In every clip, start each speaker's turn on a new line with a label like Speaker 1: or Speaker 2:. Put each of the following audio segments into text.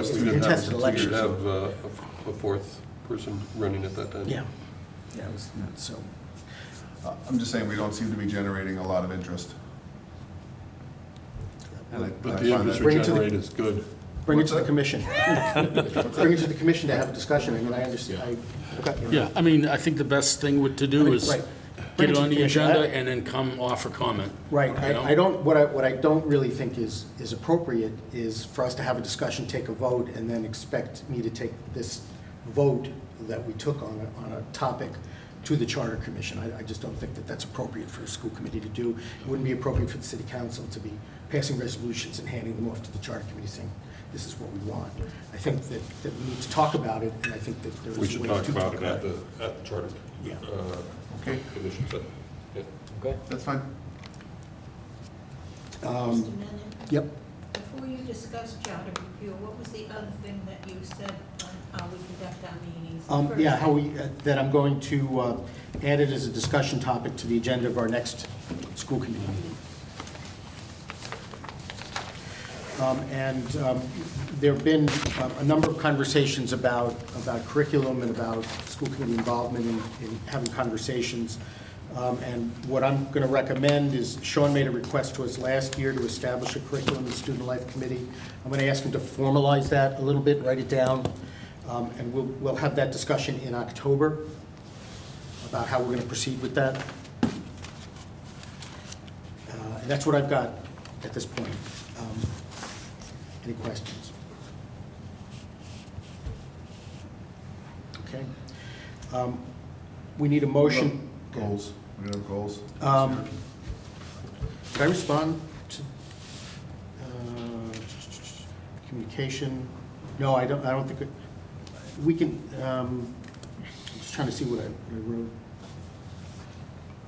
Speaker 1: It's a
Speaker 2: We didn't have-
Speaker 1: contested election.
Speaker 2: We did have uh, a a fourth person running at that time.
Speaker 1: Yeah, yeah, it was not so,
Speaker 3: Uh, I'm just saying, we don't seem to be generating a lot of interest. And I- I
Speaker 2: But the
Speaker 3: find that-
Speaker 2: interest we
Speaker 4: Bring it to the-
Speaker 2: generate is good.
Speaker 4: Bring it
Speaker 3: What's
Speaker 4: to the
Speaker 3: that?
Speaker 4: commission. Bring it to the commission to have a discussion, I mean, I understand, I, okay.
Speaker 5: Yeah, I mean, I think the best thing would- to do is
Speaker 4: Right. Bring
Speaker 5: get
Speaker 4: it
Speaker 5: it
Speaker 4: to the
Speaker 5: on the
Speaker 4: commission.
Speaker 5: agenda and then come offer comment.
Speaker 4: Right,
Speaker 5: you know?
Speaker 4: I, I don't, what I, what I don't really think is, is appropriate is for us to have a discussion, take a vote, and then expect me to take this vote that we took on, a- on a topic to the charter commission. I, I just don't think that that's appropriate for a school committee to do. It wouldn't be appropriate for the city council to be passing resolutions and handing them off to the charter committee saying, this is what we want. I think that, that we need to talk about it, and I think that there is a way
Speaker 2: We
Speaker 4: to
Speaker 2: should
Speaker 4: talk about
Speaker 2: talk about it at the, at the charter.
Speaker 4: Yeah.
Speaker 2: uh,
Speaker 3: Okay,
Speaker 2: Commission, but, yeah.
Speaker 6: Okay.
Speaker 3: that's fine.
Speaker 4: Um,
Speaker 7: Mr. Menon,
Speaker 4: Yep.
Speaker 7: before you discuss charter review, what was the other thing that you said on how we conduct our meetings?
Speaker 4: Um,
Speaker 7: First,
Speaker 4: Yeah, how we, that I'm going to uh, add it as a discussion topic to the agenda of our next school committee meeting. Um, And um, there have been uh, a number of conversations about, about curriculum and about school committee involvement in in having conversations. Um, And what I'm going to recommend is, Sean made a request to us last year to establish a curriculum and student life committee. I'm going to ask him to formalize that a little bit, write it down, um, and we'll, we'll have that discussion in October about how we're going to proceed with that. Uh, And that's what I've got at this point. Um, Any questions? Okay. Um, We need a motion.
Speaker 3: Goals, we don't have goals.
Speaker 4: Um, Did I respond to uh, communication? No, I don't, I don't think, it- we can, um, I'm just trying to see what I what I wrote.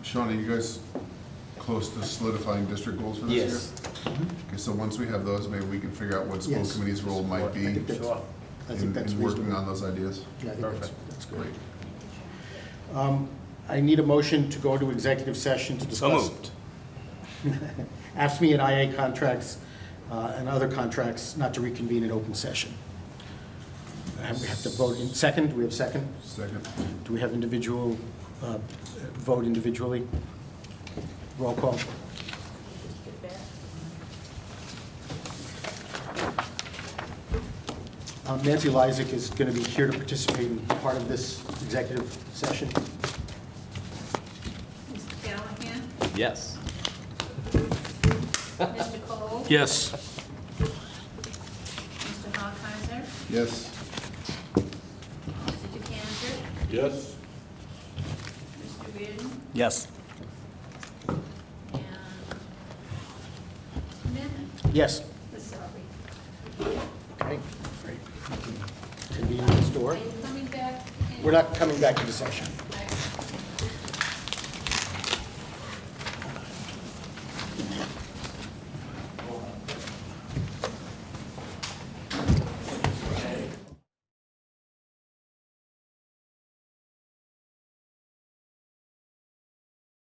Speaker 3: Sean, are you guys close to solidifying district goals for this year? Mm-hmm.
Speaker 6: Yes.
Speaker 3: Okay, so once we have those, maybe we can figure out what school
Speaker 4: Yes.
Speaker 3: committee's role might be
Speaker 4: I think
Speaker 3: in
Speaker 4: that's,
Speaker 6: Sure.
Speaker 4: I think that's
Speaker 3: in working
Speaker 4: reasonable.
Speaker 3: on those ideas.
Speaker 4: Yeah, I think that's, that's
Speaker 3: Great.
Speaker 4: great. Um, I need a motion to go to executive session to discuss. AFSMI and IA contracts uh, and other contracts not to reconvene in open session. And we have to vote in, second, do we have second?
Speaker 3: Second,
Speaker 4: Do we have individual, uh, vote individually? Roll call.
Speaker 7: Mr. Beck,
Speaker 4: Um, Nancy Lysick is going to be here to participate in part of this executive session.
Speaker 7: Mr. Callahan,
Speaker 6: Yes.
Speaker 7: Mr. Cole?
Speaker 5: Yes.
Speaker 7: Mr. Hawkeizer,
Speaker 3: yes.
Speaker 7: Mr. DeCantor,
Speaker 2: Yes?
Speaker 7: Mr. Reardon,
Speaker 6: Yes.
Speaker 7: and Mr. Menon,
Speaker 4: Yes.
Speaker 7: sorry.
Speaker 4: Okay, great. We can Convene this
Speaker 7: Are
Speaker 4: door.
Speaker 7: you coming back? in-
Speaker 4: We're not coming back to the session.